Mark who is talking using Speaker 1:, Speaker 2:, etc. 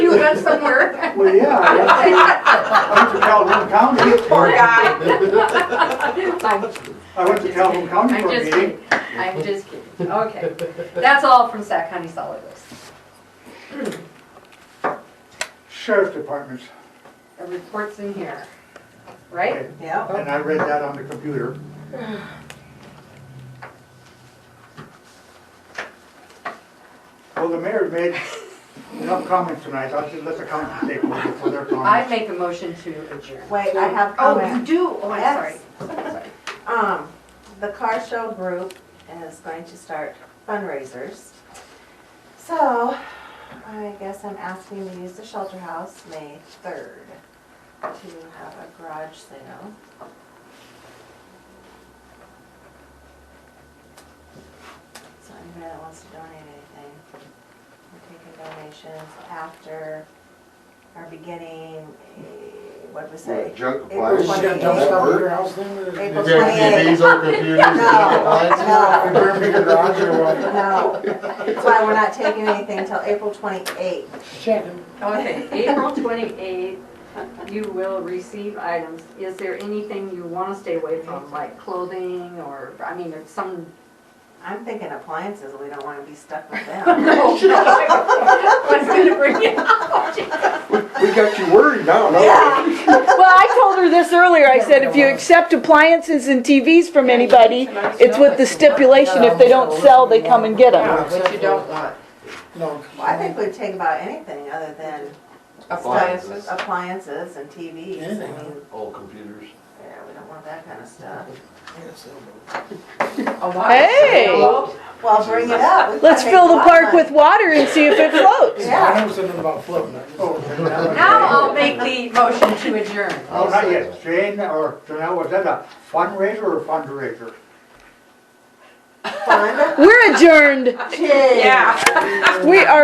Speaker 1: you went somewhere.
Speaker 2: Well, yeah, I went to Calhoun County.
Speaker 1: Poor guy. I'm
Speaker 2: I went to Calhoun County
Speaker 1: I'm
Speaker 2: for a
Speaker 1: just
Speaker 2: meeting.
Speaker 1: kidding, I'm just kidding, okay. That's all from Sac County Solid Waste.
Speaker 2: Sheriff Departments,
Speaker 1: The report's in here, right?
Speaker 3: Yeah.
Speaker 2: and I read that on the computer. Well, the mayor made enough comments tonight, I'll just let the council take over for their
Speaker 1: I
Speaker 2: comments.
Speaker 1: make a motion to adjourn.
Speaker 3: Wait, I have
Speaker 1: Oh, you
Speaker 3: comment.
Speaker 1: do, oh, I'm sorry.
Speaker 3: Yes.
Speaker 1: Sorry.
Speaker 3: Um, the car show group is going to start fundraisers. So I guess I'm asking to use the shelter house May third to have a garage sale. So anybody that wants to donate anything, we're taking donations after our beginning, eh, what was it?
Speaker 4: Junk
Speaker 3: April
Speaker 4: appliance.
Speaker 3: Shit,
Speaker 4: Does that work?
Speaker 3: April
Speaker 4: Is there
Speaker 3: twenty-eighth.
Speaker 4: TVs or computers? junk appliances?
Speaker 3: No.
Speaker 4: Burn me the garage or what?
Speaker 3: No, that's why we're not taking anything till April twenty-eighth.
Speaker 1: Okay, April twenty-eighth, you will receive items. Is there anything you want to stay away from, like clothing or, I mean, there's some.
Speaker 3: I'm thinking appliances, we don't wanna be stuck with them.
Speaker 1: What's gonna bring you?
Speaker 4: We got you worried now, no?
Speaker 5: Well, I told her this earlier. I said, if you accept appliances and TVs from anybody, it's with the stipulation, if they don't sell, they come and get them.
Speaker 6: What you don't want.
Speaker 7: No.
Speaker 3: Well, I think we'd take about anything other than
Speaker 4: Appliances.
Speaker 3: stuff- appliances and TVs, I mean,
Speaker 4: All computers.
Speaker 3: yeah, we don't want that kinda stuff.
Speaker 5: Hey,
Speaker 3: Well, bring it up. We've
Speaker 5: let's
Speaker 3: gotta make
Speaker 5: fill
Speaker 3: a
Speaker 5: the
Speaker 3: lot of
Speaker 5: park
Speaker 3: money.
Speaker 5: with water and see if it floats.
Speaker 3: Yeah.
Speaker 7: I know something about floating.
Speaker 2: Oh, and that was-
Speaker 1: Now I'll make the motion to adjourn.
Speaker 2: Oh, not yet, Jane or Janelle, was that a fundraiser or fundraiser?
Speaker 3: Fun.
Speaker 5: We're adjourned.
Speaker 1: Yeah.
Speaker 5: We are